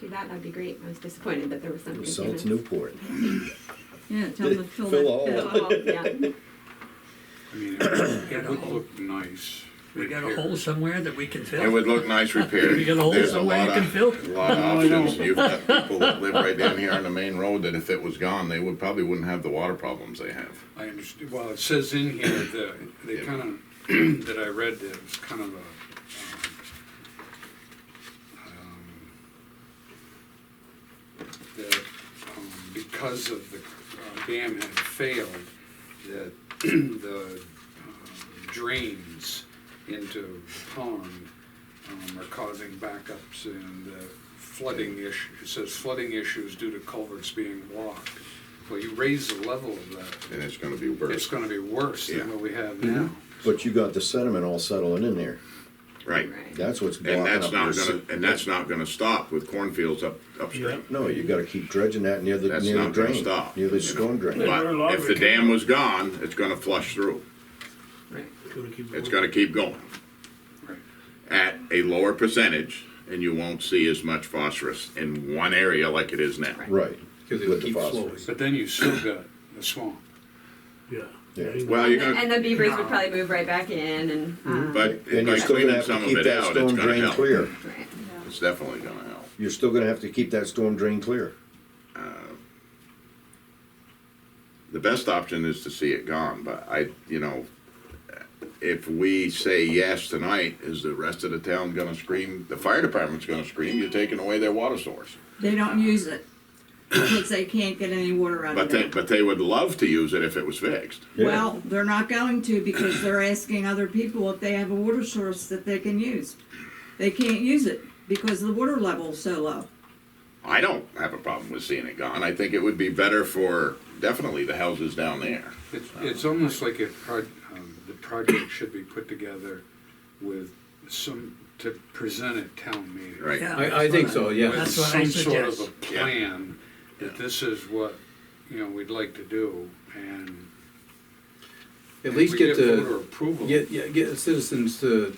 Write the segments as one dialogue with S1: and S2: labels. S1: do that, that'd be great. I was disappointed that there was something.
S2: South Newport.
S3: Yeah, tell them to fill
S2: Fill
S3: that
S2: all.
S3: pit.
S1: Yeah,
S4: I mean, it it would look nice.
S5: We got a
S4: repaired.
S5: hole somewhere that we can
S6: It
S5: fill.
S6: would look nice repaired.
S5: You got a hole
S6: There's
S5: somewhere you
S6: lot
S5: can
S6: of-
S5: fill?
S6: A lot of options. You've got people that live right down here on the main road that if it was gone, they would, probably wouldn't have the water problems they have.
S4: I understand, well, it says in here that they
S6: Yeah.
S4: kind of, that I read, that it was kind of a, um, um, that, um, because of the uh, dam had failed, that the um, drains into the pond um, are causing backups and uh, flooding issues, it says flooding issues due to culverts being blocked. Well, you raise the level of that,
S6: And it's gonna be
S4: it's
S6: worse.
S4: gonna be worse
S6: Yeah.
S4: than what we have now.
S2: But you got the sediment all settling in there.
S6: Right.
S1: right.
S2: That's what's blocking
S6: And that's
S2: up your
S6: not gonna,
S2: se-
S6: and that's not gonna stop with cornfields up, upstream.
S2: No, you gotta keep dredging that near the,
S6: That's
S2: near the
S6: not gonna
S2: drain,
S6: stop,
S2: near the
S6: you know.
S2: storm drain.
S6: But if the dam was gone, it's gonna flush through.
S1: Right.
S6: It's gonna keep going
S4: Right.
S6: at a lower percentage and you won't see as much phosphorus in one area like it is now.
S2: Right.
S7: Because
S2: with
S7: it
S2: the
S7: keeps flowing.
S2: phosphorus.
S4: But then you still got the swamp.
S7: Yeah.
S2: Yeah.
S6: Well, you're gonna,
S1: And the beavers would probably move right back in and, um,
S6: but
S2: And
S6: by
S2: you're still gonna
S6: cleaning
S2: have
S6: some
S2: to
S6: of
S2: keep
S6: it
S2: that
S6: out, it's
S2: storm
S6: gonna
S2: drain
S6: help.
S2: clear.
S1: right.
S6: It's definitely gonna help.
S2: You're still gonna have to keep that storm drain clear.
S6: The best option is to see it gone, but I, you know, if we say yes tonight, is the rest of the town gonna scream? The fire department's gonna scream, you're taking away their water source.
S3: They don't use it because they can't get any water out
S6: But
S3: of
S6: they,
S3: it.
S6: but they would love to use it if it was fixed.
S3: Well, they're not going to because they're asking other people if they have a water source that they can use. They can't use it because the water level's so low.
S6: I don't have a problem with seeing it gone. I think it would be better for definitely the houses down there.
S4: It's,
S6: Uh-huh.
S4: it's almost like a proj, um, the project should be put together with some, to present at town meeting.
S6: Right.
S5: Yeah,
S7: I, I think so, yeah.
S4: With
S5: That's what I
S4: some sort of a
S5: suggest.
S4: plan, that this is what, you know, we'd like to do, and.
S7: At least get
S4: voter
S7: the,
S4: Approval.
S7: get, yeah, get citizens to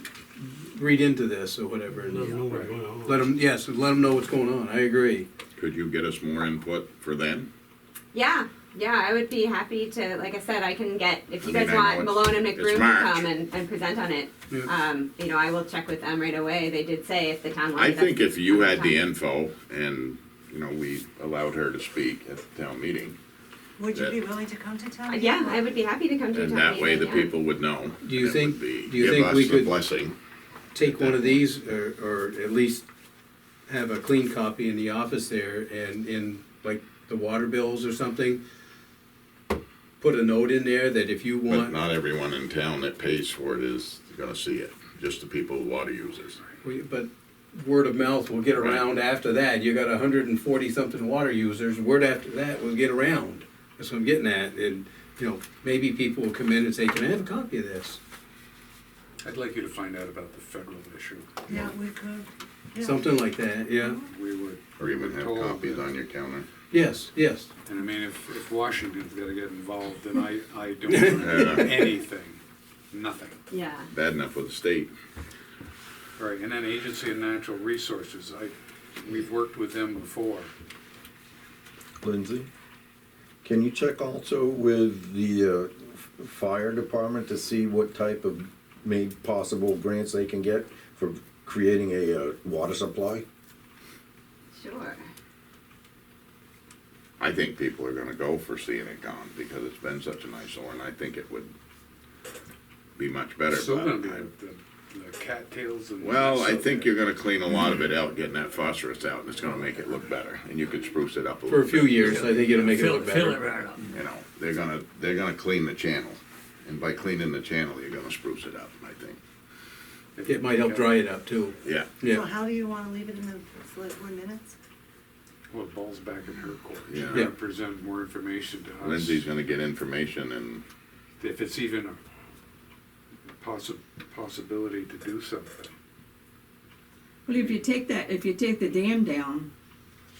S7: read into this or whatever. and Let them, yes, let them know what's going on, I agree.
S6: Could you get us more input for them?
S1: Yeah, yeah, I would be happy to, like I said, I can get, if you
S6: I
S1: guys
S6: mean, I know
S1: want
S6: it's-
S1: Malone and
S6: it's
S1: McBroom to
S6: March.
S1: come and, and present on it, um, you know, I will check with them right away. They did say if the town
S6: I
S1: wanted us.
S6: think if you had the
S1: time.
S6: info and, you know, we allowed her to speak at the town meeting,
S8: Would you
S6: That-
S8: be willing to come to town?
S1: Yeah, I would be happy to come to a
S6: and
S1: town
S6: that way the
S1: meeting, yeah.
S6: people would know.
S7: Do you
S6: It
S7: think-
S6: would be-
S7: do you think
S6: Give
S7: we
S6: us the
S7: could-
S6: blessing.
S7: Take one of these, or, or at least have a clean copy in the office there and in, like, the water bills or something. Put a note in there that if you
S6: But
S7: want,
S6: not everyone in town that pays for it is gonna see it, just the people, water users.
S7: We- But word of mouth will get around after that. You got hundred and forty something water users, word after that will get around. That's what I'm getting at, and, you know, maybe people will come in and say, can I have a copy of this?
S4: I'd like you to find out about the federal issue.
S8: Yeah, we could. yeah. Uh-huh.
S7: Something like that, yeah.
S4: We would.
S6: Or even have
S4: Told
S6: copies
S4: that-
S6: on your counter.
S7: Yes, yes.
S4: And I mean, if, if Washington's gotta get involved, then I, I don't know anything, nothing.
S1: Yeah.
S6: Bad enough with the state.
S4: Right, and then Agency of Natural Resources, I, we've worked with them before.
S2: Lindsay, can you check also with the uh, f- fire department to see what type of made possible grants they can get for creating a uh, water supply?
S1: Sure.
S6: I think people are gonna go for seeing it gone because it's been such an eyesore, and I think it would be much better.
S4: Still
S6: but
S4: gonna be
S6: I-
S4: the, the- the cattails and.
S6: Well, I think you're gonna clean a lot of
S7: Mm-hmm.
S6: it out, getting that phosphorus out, and it's gonna make it look better, and you could spruce it up a little.
S7: For a few
S6: bit.
S7: years, I think it'll make it
S5: Fill,
S7: look
S5: fill it
S7: better.
S5: right up.
S6: You know, they're gonna, they're gonna clean the channel, and by cleaning the channel, you're gonna spruce it up, I think.
S7: It might help dry it up too,
S6: Yeah,
S8: So
S7: yeah.
S8: how do you wanna leave it in the four minutes?
S4: Well, the ball's back in her court. She's
S6: Yeah.
S4: gonna present more information to us.
S6: Lindsay's gonna get information and,
S4: If it's even a possi- possibility to do something.
S3: Well, if you take that, if you take the dam down,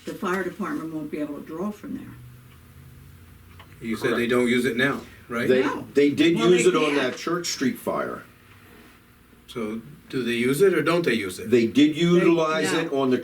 S3: the fire department won't be able to draw from there.
S7: You said they don't use it now, right?
S2: They,
S3: No.
S2: they did
S3: Well,
S2: use
S3: they
S2: it on
S3: can't.
S2: that Church Street fire.
S7: So do they use it or don't they use it?
S2: They did utilize
S3: no.
S2: it on the